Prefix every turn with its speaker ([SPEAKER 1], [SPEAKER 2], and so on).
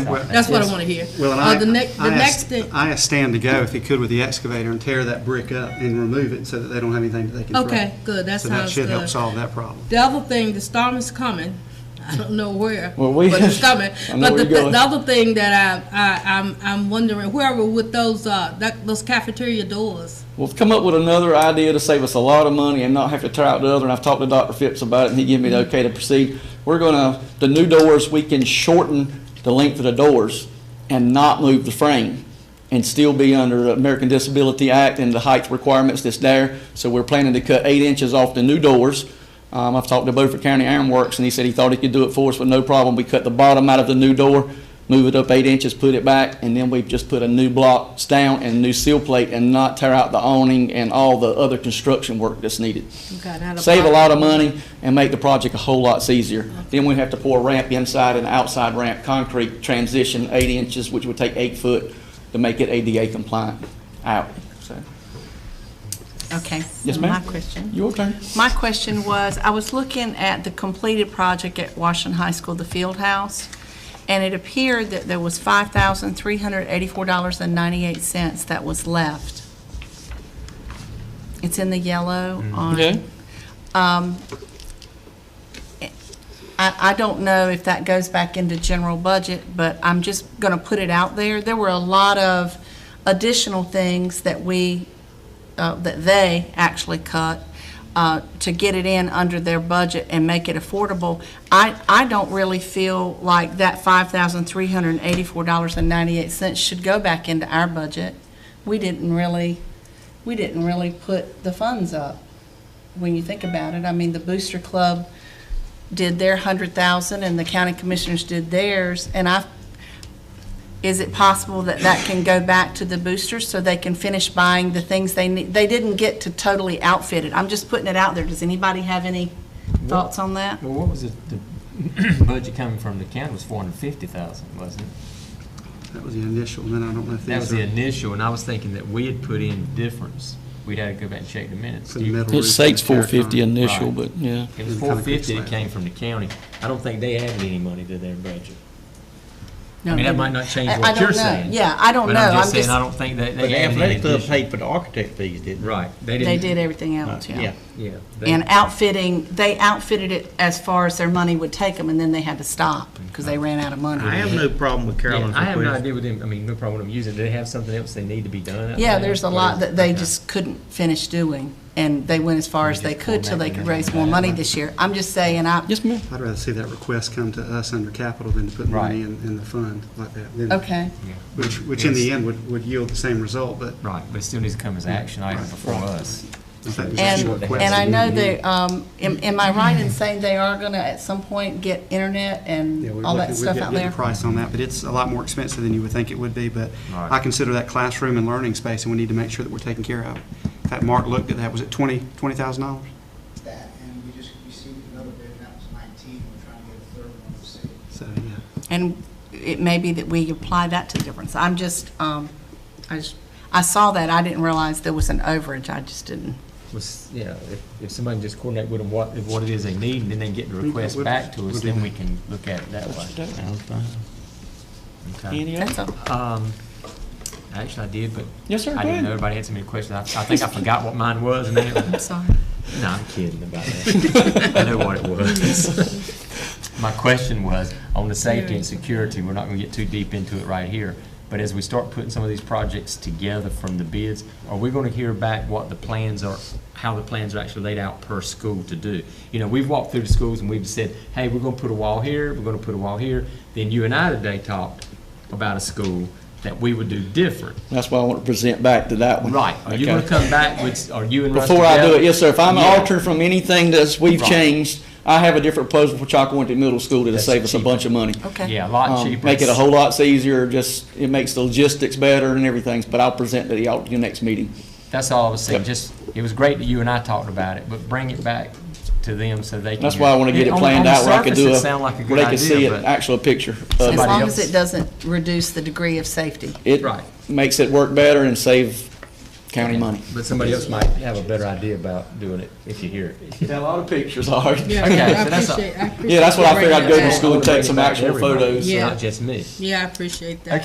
[SPEAKER 1] That's what I want to hear.
[SPEAKER 2] Well, and
[SPEAKER 1] Uh,
[SPEAKER 2] I,
[SPEAKER 1] The next, the
[SPEAKER 2] I
[SPEAKER 1] next
[SPEAKER 2] asked,
[SPEAKER 1] thing,
[SPEAKER 2] I asked Stan to go if he could with the excavator and tear that brick up and remove it so that they don't have anything that they can throw.
[SPEAKER 1] okay, good, that
[SPEAKER 2] So that
[SPEAKER 1] sounds
[SPEAKER 2] should help
[SPEAKER 1] good.
[SPEAKER 2] solve that problem.
[SPEAKER 1] The other thing, the storm is coming. I don't know where,
[SPEAKER 3] Well, we-
[SPEAKER 1] but it's coming.
[SPEAKER 3] I know
[SPEAKER 1] But the,
[SPEAKER 3] where you're
[SPEAKER 1] th-
[SPEAKER 3] going.
[SPEAKER 1] the other thing that I, I, I'm, I'm wondering, whoever with those, uh, that, those cafeteria doors.
[SPEAKER 3] Well, come up with another idea to save us a lot of money and not have to tear out the other, and I've talked to Dr. Phipps about it, and he gave me the okay to proceed. We're gonna, the new doors, we can shorten the length of the doors and not move the frame, and still be under the American Disability Act and the height requirements that's there. So we're planning to cut eight inches off the new doors. Um, I've talked to Beaufort County Ironworks, and he said he thought he could do it for us with no problem. We cut the bottom out of the new door, move it up eight inches, put it back, and then we've just put a new block down and new seal plate and not tear out the awning and all the other construction work that's needed.
[SPEAKER 1] Okay, now the
[SPEAKER 3] Save a
[SPEAKER 1] block-
[SPEAKER 3] lot of money and make the project a whole lot easier. Then we have to pour ramp inside and outside ramp, concrete transition, eight inches, which would take eight foot to make it ADA compliant out, so.
[SPEAKER 4] Okay.
[SPEAKER 3] Yes,
[SPEAKER 4] so
[SPEAKER 3] ma'am.
[SPEAKER 4] My question.
[SPEAKER 3] Your turn.
[SPEAKER 4] My question was, I was looking at the completed project at Washington High School, the field house, and it appeared that there was $5,384.98 that was left. It's in the yellow on.
[SPEAKER 3] Mm-hmm. Okay.
[SPEAKER 4] Um, I, I don't know if that goes back into general budget, but I'm just going to put it out there. There were a lot of additional things that we, uh, that they actually cut uh, to get it in under their budget and make it affordable. I, I don't really feel like that $5,384.98 should go back into our budget. We didn't really, we didn't really put the funds up when you think about it. I mean, the Booster Club did their hundred thousand, and the county commissioners did theirs, and I, is it possible that that can go back to the boosters so they can finish buying the things they need? They didn't get to totally outfit it. I'm just putting it out there. Does anybody have any thoughts on that?
[SPEAKER 5] Well, what was it, the budget coming from the county was four hundred and fifty thousand, wasn't it?
[SPEAKER 2] That was the initial, and then I don't know if
[SPEAKER 5] That was
[SPEAKER 2] these
[SPEAKER 5] the
[SPEAKER 2] are
[SPEAKER 5] initial, and I was thinking that we had put in difference. We'd have to go back and check the minutes.
[SPEAKER 2] for the metal roof.
[SPEAKER 3] It states
[SPEAKER 2] and the terracon.
[SPEAKER 3] four fifty initial,
[SPEAKER 5] Right.
[SPEAKER 3] but yeah.
[SPEAKER 5] It was four fifty that came from the county. I don't think they added any money to their budget. I mean, that might not change
[SPEAKER 4] I- I
[SPEAKER 5] what
[SPEAKER 4] don't
[SPEAKER 5] you're
[SPEAKER 4] know.
[SPEAKER 5] saying.
[SPEAKER 4] Yeah, I don't
[SPEAKER 5] But
[SPEAKER 4] know.
[SPEAKER 5] I'm
[SPEAKER 4] I'm
[SPEAKER 5] just saying,
[SPEAKER 4] just-
[SPEAKER 5] I don't think that
[SPEAKER 6] But
[SPEAKER 5] they
[SPEAKER 6] the
[SPEAKER 5] added any
[SPEAKER 6] athletic club
[SPEAKER 5] additional.
[SPEAKER 6] paid for the architect fees, didn't
[SPEAKER 5] Right, they
[SPEAKER 4] They
[SPEAKER 5] didn't.
[SPEAKER 4] did everything else,
[SPEAKER 6] Uh,
[SPEAKER 4] yeah.
[SPEAKER 5] Yeah. they-
[SPEAKER 4] And outfitting, they outfitted it as far as their money would take them, and then they had to stop because they ran out of money.
[SPEAKER 6] I have no problem with
[SPEAKER 5] Yeah,
[SPEAKER 6] Carolyn's
[SPEAKER 5] I have no
[SPEAKER 6] request.
[SPEAKER 5] idea with them, I mean, no problem with them using, it. do they have something else they need to be done? out
[SPEAKER 4] Yeah,
[SPEAKER 5] there?
[SPEAKER 4] there's a
[SPEAKER 5] What
[SPEAKER 4] lot
[SPEAKER 5] is-
[SPEAKER 4] that they
[SPEAKER 5] okay.
[SPEAKER 4] just couldn't finish doing, and they went as far as they could till they could raise more money this year. I'm just saying, I,
[SPEAKER 3] Yes, ma'am.
[SPEAKER 2] I'd rather see that request come to us under capital than to put money in, in the fund like that. then-
[SPEAKER 4] okay,
[SPEAKER 5] Yeah.
[SPEAKER 2] Which, which in the end would, would yield the same result, but
[SPEAKER 5] Right, but it still needs to come as action item before us.
[SPEAKER 2] I think we should
[SPEAKER 4] and,
[SPEAKER 2] request
[SPEAKER 4] and I
[SPEAKER 2] it.
[SPEAKER 4] know they, um, am, am I right in saying they are gonna at some point get internet
[SPEAKER 2] Yeah, we
[SPEAKER 4] and all
[SPEAKER 2] look-
[SPEAKER 4] that
[SPEAKER 2] we
[SPEAKER 4] stuff
[SPEAKER 2] get-
[SPEAKER 4] out
[SPEAKER 2] get the
[SPEAKER 4] there?
[SPEAKER 2] price on that, but it's a lot more expensive than you would think it would be, but
[SPEAKER 5] Right.
[SPEAKER 2] I consider that classroom and learning space, and we need to make sure that we're taking care of. it. In fact, Mark looked at that, was it twenty, twenty thousand dollars?
[SPEAKER 7] that, and we just received another bid, and that was 19, we're trying to get a third one to see.
[SPEAKER 2] So, yeah.
[SPEAKER 4] And it may be that we apply that to the difference. I'm just, um, I just, I saw that, I didn't realize there was an overage, I just didn't.
[SPEAKER 5] Was, you know, if, if somebody can just coordinate with them what, what it is they need, and then they get the request
[SPEAKER 2] we'll-
[SPEAKER 5] back to
[SPEAKER 2] we'll
[SPEAKER 5] us,
[SPEAKER 2] do
[SPEAKER 5] then
[SPEAKER 2] that.
[SPEAKER 5] we can look at it that way.
[SPEAKER 6] That was fine.
[SPEAKER 5] Okay.
[SPEAKER 3] Any other?
[SPEAKER 4] That's all.
[SPEAKER 5] Um, actually, I did, but.
[SPEAKER 3] Yes, sir,
[SPEAKER 5] I
[SPEAKER 3] go
[SPEAKER 5] didn't know
[SPEAKER 3] ahead.
[SPEAKER 5] everybody had so many questions. I, I think I forgot what mine was and
[SPEAKER 4] I'm
[SPEAKER 5] that.
[SPEAKER 4] sorry.
[SPEAKER 5] No, I'm kidding about that. I know what it was. My question was, on the safety and security, we're not gonna get too deep into it right here, but as we start putting some of these projects together from the bids, are we gonna hear back what the plans are, how the plans are actually laid out per school to do? You know, we've walked through the schools and we've said, hey, we're gonna put a wall here, we're gonna put a wall here. Then you and I today talked about a school that we would do different.
[SPEAKER 3] That's why I want to present back to that one.
[SPEAKER 5] Right, are you gonna
[SPEAKER 3] Okay.
[SPEAKER 5] come back with, are you and Russ
[SPEAKER 3] Before I do it,
[SPEAKER 5] together?
[SPEAKER 3] yes, sir, if I'm
[SPEAKER 5] Yeah.
[SPEAKER 3] altered from anything that's, we've
[SPEAKER 5] Right.
[SPEAKER 3] changed, I have a different proposal for Chalkawinty Middle School that'll
[SPEAKER 5] That's
[SPEAKER 3] save us a
[SPEAKER 5] cheaper.
[SPEAKER 3] bunch of money.
[SPEAKER 4] Okay.
[SPEAKER 5] Yeah, a lot
[SPEAKER 3] Um,
[SPEAKER 5] cheaper.
[SPEAKER 3] Make it a whole lot easier, just, it makes the logistics better and everything, but I'll present to the, al- your next meeting.
[SPEAKER 5] That's all I was saying,
[SPEAKER 3] Yep.
[SPEAKER 5] just, it was great that you and I talked about it, but bring it back to them so they can.
[SPEAKER 3] That's why I want to get it
[SPEAKER 5] On-
[SPEAKER 3] planned out where I could do a.
[SPEAKER 5] On the surface, it sounded like a good
[SPEAKER 3] Where they could see
[SPEAKER 5] idea,
[SPEAKER 3] an
[SPEAKER 5] but.
[SPEAKER 3] actual picture
[SPEAKER 4] As
[SPEAKER 3] of it.
[SPEAKER 5] Somebody
[SPEAKER 4] long as
[SPEAKER 5] else.
[SPEAKER 4] it doesn't reduce the degree of safety.
[SPEAKER 3] It
[SPEAKER 5] Right.
[SPEAKER 3] makes it work better and save county money.
[SPEAKER 5] But somebody else might have a better idea about doing it if you hear it.
[SPEAKER 3] Got a lot of pictures, all right.
[SPEAKER 1] Yeah,
[SPEAKER 5] Okay,
[SPEAKER 1] I
[SPEAKER 5] so that's a-
[SPEAKER 1] appreciate, I appreciate.
[SPEAKER 3] Yeah, that's what I
[SPEAKER 1] you bringing
[SPEAKER 3] figured I'd go
[SPEAKER 1] that
[SPEAKER 3] to
[SPEAKER 1] back.
[SPEAKER 3] school and take some actual
[SPEAKER 5] Everybody,
[SPEAKER 3] photos.
[SPEAKER 1] Yeah.
[SPEAKER 5] Not just me.
[SPEAKER 1] Yeah, I appreciate that.
[SPEAKER 5] Okay,